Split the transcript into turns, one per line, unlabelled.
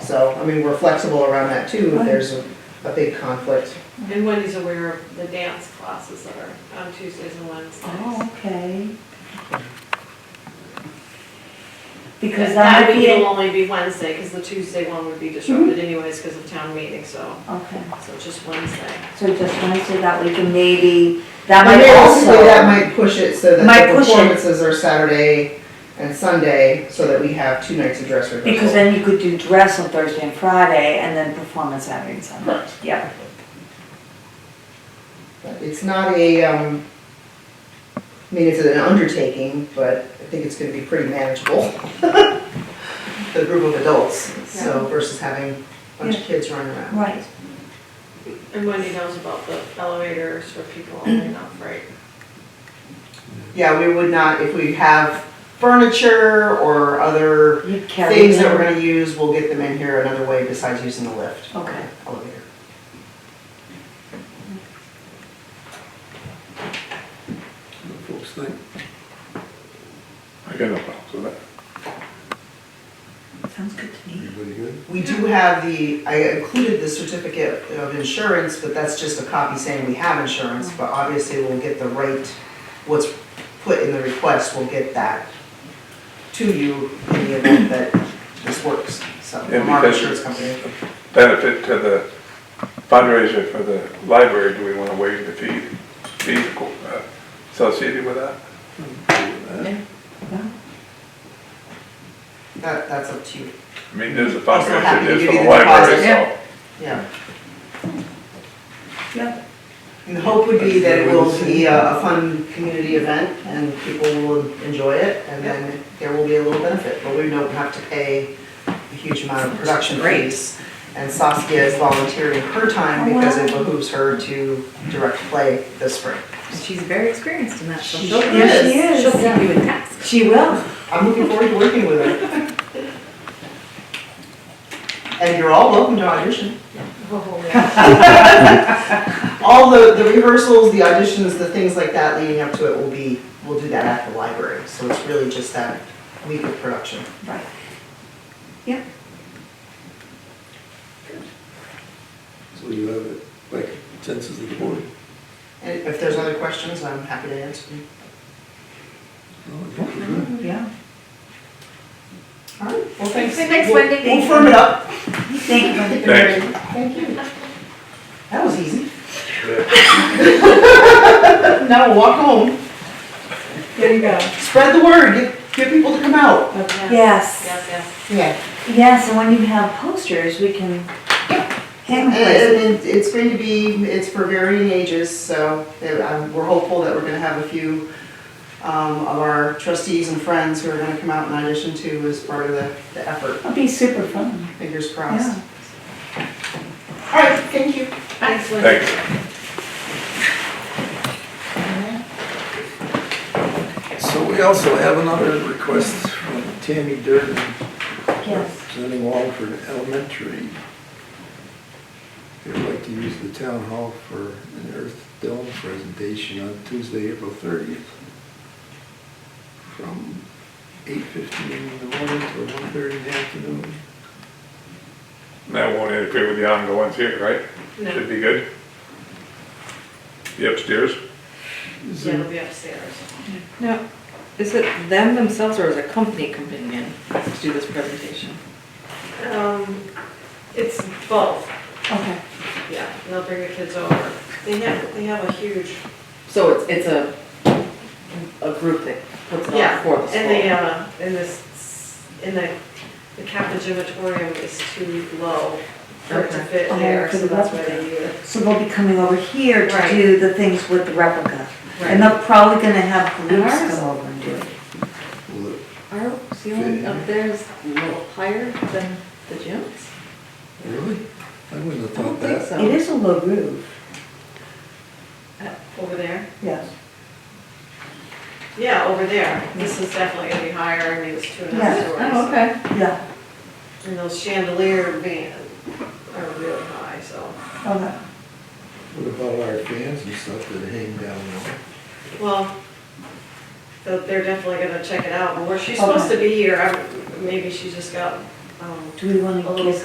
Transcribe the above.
so, I mean, we're flexible around that too, if there's a, a big conflict.
And Wendy's aware of the dance classes that are on Tuesdays and Wednesdays.
Oh, okay. Because
That
that would
week
be,
it'll
a- Mm-hmm.
only be Wednesday, because the Tuesday one would be disrupted anyways because of town meeting, so,
okay,
so just Wednesday.
so just Wednesday that we can maybe, that
And
might also.
realistically, that might push it so
Might
that the
push it.
performances are Saturday and Sunday, so that we have two nights of dress rehearsal.
Because then you could do dress on Thursday and Friday and then perform on Saturday and Sunday.
Correct.
Yeah,
But It's not a, um, I mean, it's an undertaking, but I think it's gonna be pretty manageable. for The group of adults, so versus having a bunch of kids running around.
right.
And Wendy knows about the elevators for people only up, right?
Yeah, we would not, if we have furniture or other
You carry
things that
them.
we're gonna use, we'll get them in here another way besides using the lift.
Okay.
Elevator.
Folks think. I got no problems with that.
Sounds good to me.
Everybody good?
We do have the, I included the certificate of insurance, but that's just a copy saying we have insurance, but obviously we'll get the right, what's put in the request, we'll get that to you in the event that this works, so,
And
from our
because-
insurance company.
benefit to the fundraiser for the library, do we want to waive the fee, fee uh, associated with that?
That, that's up to you,
I mean, there's a
Also happy to
fundraiser, there's
give
for
you
the
the
library,
deposit.
so.
yeah.
Yep.
And the hope would be that it will be a a fun community event and people will enjoy it, and then there will be a little benefit, but we don't have to pay a huge amount of production fees. And Saskia is volunteering her
Oh,
time because it behooves her to direct play this spring.
She's very experienced in that, so
She
she'll,
sure
yeah,
is.
she is. she'll keep you in task.
She will.
I'm looking forward to working with her. And you're all welcome to audition.
Oh,
All the, the rehearsals, the auditions, the things like that leading up to it will be, we'll do that at the library. So it's really just that week of production.
Right.
So you have it, like, consensus of the board?
And if there's other questions, I'm happy to answer them.
No, Oh, I think we're good.
Yeah.
All right, well, thanks.
Thanks,
We'll-
Wendy.
We'll firm it up.
Thank you.
Thanks.
Thank you. That was easy.
Yeah.
Now we'll walk home.
There you go.
Spread the word, get, get people to come out.
Yes.
Yes, yes.
Yeah.
Yes, and when you have posters, we can hang
And
them.
it- it's going to be, it's for varying ages, so uh, um, we're hopeful that we're gonna have a few um, of our trustees and friends who are gonna come out and audition too as part of the, the effort,
It'll be super fun.
fingers
Yeah.
crossed. All right, thank you.
Thanks, Wendy.
Thanks.
So we also have another request from Tammy Durden,
Yes.
representing Wallford Elementary. They'd like to use the town hall for an Earth Dome presentation on Tuesday, April thirtieth. From eight fifteen in the morning to one thirty in the afternoon.
And That won't interfere with the ongoings here, right?
No.
Should be good. The upstairs,
Is
Yeah,
there
it'll be upstairs.
No, is it them themselves or is a company coming in to do this presentation?
Um, it's both,
Okay.
yeah, they'll bring the kids over. They have, they have a huge,
So it's, it's a, a group that puts it
yeah,
on for the
and they,
school?
uh, in this, in the, the Kappa Gymatorium is too low for it to
Okay.
fit
Oh,
there,
for
so
the
that's why
replica.
they do it.
So they'll be coming over here to
Right.
do the things with the replica. And
Right.
they're probably gonna have groups
ours?
go over and do it.
will it
Our ceiling up there is a little higher than the gym's?
Really? I wouldn't have
I don't
thought
think
that.
so.
It is a low roof.
Over there?
Yes.
Yeah, over there. This is definitely gonna be higher, I mean, it's two and a half
Yeah.
stories.
Oh, okay.
Yeah.
And those chandelier being, are really high, so.
Okay.
What about our fans and stuff that hang down there?
Well, they're they're definitely gonna check it out more. She's supposed to be here, I- maybe she just got, um,
Do we wanna
A little
give